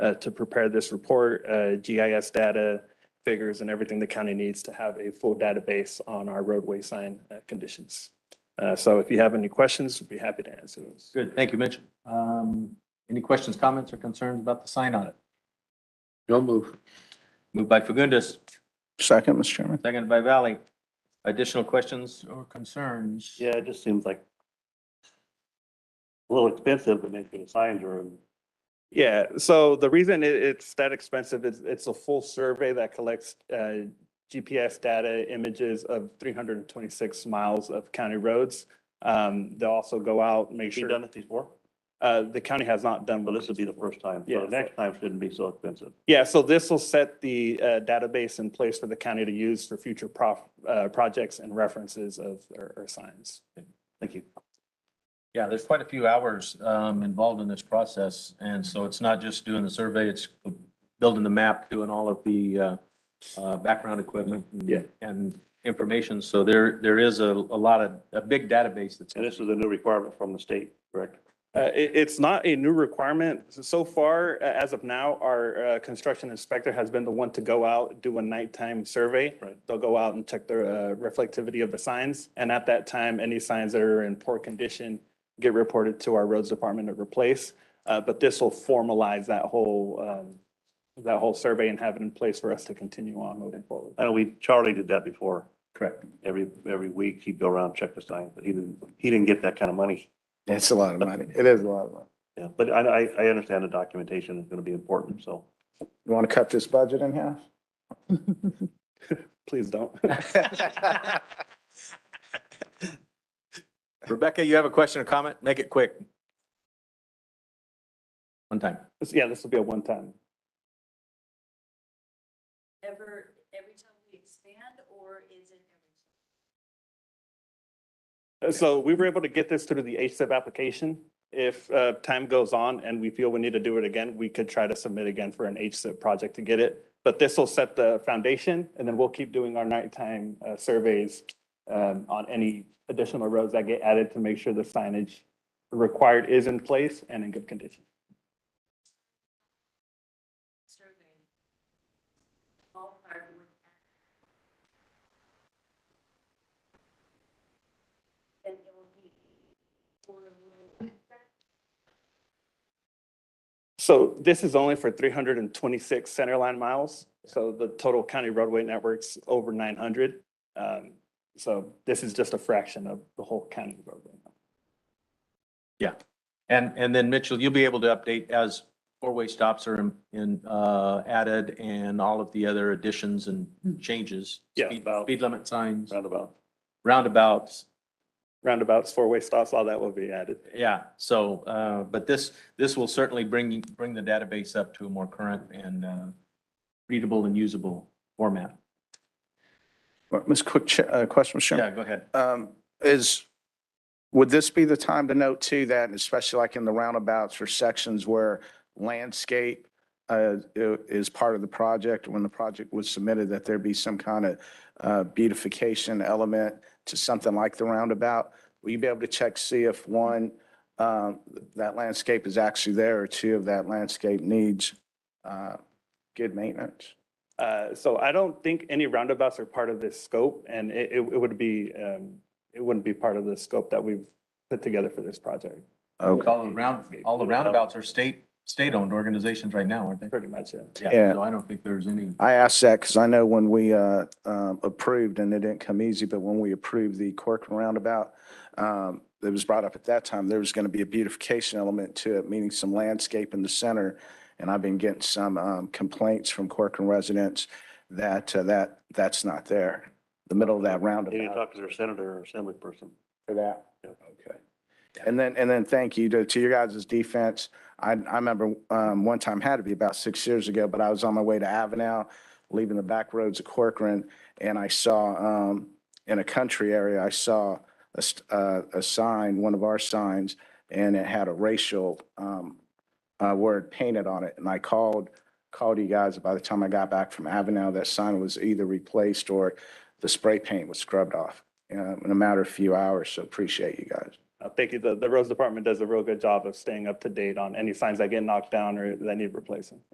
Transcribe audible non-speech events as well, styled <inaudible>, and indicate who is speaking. Speaker 1: uh, to prepare this report, uh, GIS data, figures and everything the county needs to have a full database on our roadway sign uh, conditions. Uh, so if you have any questions, we'd be happy to answer those.
Speaker 2: Good, thank you, Mitch. Um, any questions, comments, or concerns about the sign audit?
Speaker 3: No move.
Speaker 2: Moved by Fagundes,
Speaker 4: Second, Mr. Chairman.
Speaker 2: seconded by Valley. Additional questions or concerns?
Speaker 5: Yeah, it just seems like a little expensive to make sure the signs are in
Speaker 1: Yeah, so the reason it, it's that expensive is it's a full survey that collects, uh, GPS data images of three hundred and twenty-six miles of county roads. Um, they'll also go out, make
Speaker 5: Have you done
Speaker 1: sure,
Speaker 5: it before?
Speaker 1: uh, the county has not done.
Speaker 5: Well, this would be the first time.
Speaker 1: Yeah.
Speaker 5: So the next time shouldn't be so expensive.
Speaker 1: Yeah, so this will set the uh, database in place for the county to use for future prof, uh, projects and references of, or, or signs.
Speaker 5: Thank you.
Speaker 2: Yeah, there's quite a few hours um, involved in this process, and so it's not just doing the survey, it's building the map, doing all of the uh, uh, background equipment and-
Speaker 1: Yeah.
Speaker 2: and information, so there, there is a, a lot of, a big database that's.
Speaker 5: And this is a new requirement from the state, correct?
Speaker 1: Uh, it, it's not a new requirement. So- So far, a- as of now, our uh, construction inspector has been the one to go out, do a nighttime survey.
Speaker 5: Right.
Speaker 1: They'll go out and check the uh, reflectivity of the signs, and at that time, any signs that are in poor condition get reported to our roads department to replace. Uh, But this will formalize that whole, um, that whole survey and have it in place for us to continue on moving forward.
Speaker 5: I know we, Charlie did that before.
Speaker 2: Correct.
Speaker 5: Every, every week he'd go around, check the signs, but he didn't, he didn't get that kind of money.
Speaker 4: It's a lot of money. It is a lot of money.
Speaker 5: Yeah, but I, I, I understand the documentation is gonna be important, so.
Speaker 4: You want to cut this budget in half?
Speaker 1: Please don't.
Speaker 2: <laughs>
Speaker 1: <laughs>
Speaker 2: Rebecca, you have a question or comment? Make it quick. One time.
Speaker 1: Yeah, this will be a one-time.
Speaker 6: ever, every time we expand, or is it every?
Speaker 1: So we were able to get this through the HSIP application. If uh, time goes on and we feel we need to do it again, we could try to submit again for an HSIP project to get it. But this will set the foundation and then we'll keep doing our nighttime uh, surveys um, on any additional roads that get added to make sure the signage required is in place and in good condition.
Speaker 6: survey? Ballpark would have- Then it will be. for a little-
Speaker 1: So this is only for three hundred and twenty-six centerline miles. So the total county roadway network's over nine hundred. Um, So this is just a fraction of the whole county roadway.
Speaker 2: And, and then Mitchell, you'll be able to update as four-way stops are in- in, uh, added and all of the other additions and changes.
Speaker 1: Yeah,
Speaker 2: Speed
Speaker 1: about-
Speaker 2: speed limit signs,
Speaker 5: Roundabout.
Speaker 2: roundabouts,
Speaker 1: roundabouts, four-way stops, all that will be added.
Speaker 2: yeah. So, uh, but this, this will certainly bring, bring the database up to a more current and, uh, readable and usable format.
Speaker 4: Well, Ms. Quick, cha- uh, question, Mr. Chairman.
Speaker 2: Yeah, go ahead.
Speaker 4: Um, is, would this be the time to note too that, especially like in the roundabouts or sections where landscape uh, i- is part of the project, when the project was submitted, that there be some kind of uh, beautification element to something like the roundabout? Will you be able to check, see if one, um, that landscape is actually there or two of that landscape needs uh, good maintenance?
Speaker 1: Uh, So I don't think any roundabouts are part of this scope, and it, it it would be, um, it wouldn't be part of the scope that we've put together for this project,
Speaker 4: Okay.
Speaker 2: All the round, all the roundabouts are state, state-owned organizations right now, aren't they?
Speaker 1: pretty much, yeah.
Speaker 4: Yeah.
Speaker 2: So I don't think there's any.
Speaker 4: I asked that because I know when we uh, um, approved, and it didn't come easy, but when we approved the Corcoran Roundabout, um, it was brought up at that time, there was going to be a beautification element to it, meaning some landscape in the center. And I've been getting some um, complaints from Corcoran residents that, uh, that, that's not there, the middle of that
Speaker 5: You need to
Speaker 4: roundabout
Speaker 5: talk to their senator or assembly person.
Speaker 4: for that.
Speaker 5: Yeah.
Speaker 4: Okay. And then, and then thank you to, to your guys' defense. I, I remember, um, one time had to be about six years ago, but I was on my way to Avenel, leaving the back roads of Corcoran, and I saw, um, in a country area, I saw a, st- uh, a sign, one of our signs, and it had a racial, um, uh, word painted on it, and I called, called you guys. By the time I got back from Avenel, that sign was either replaced or the spray paint was scrubbed off, uh, in a matter of few hours, so appreciate you guys.
Speaker 1: Uh, Thank you. The, the roads department does a real good job of staying up to date on any signs that get knocked down or that need replacing.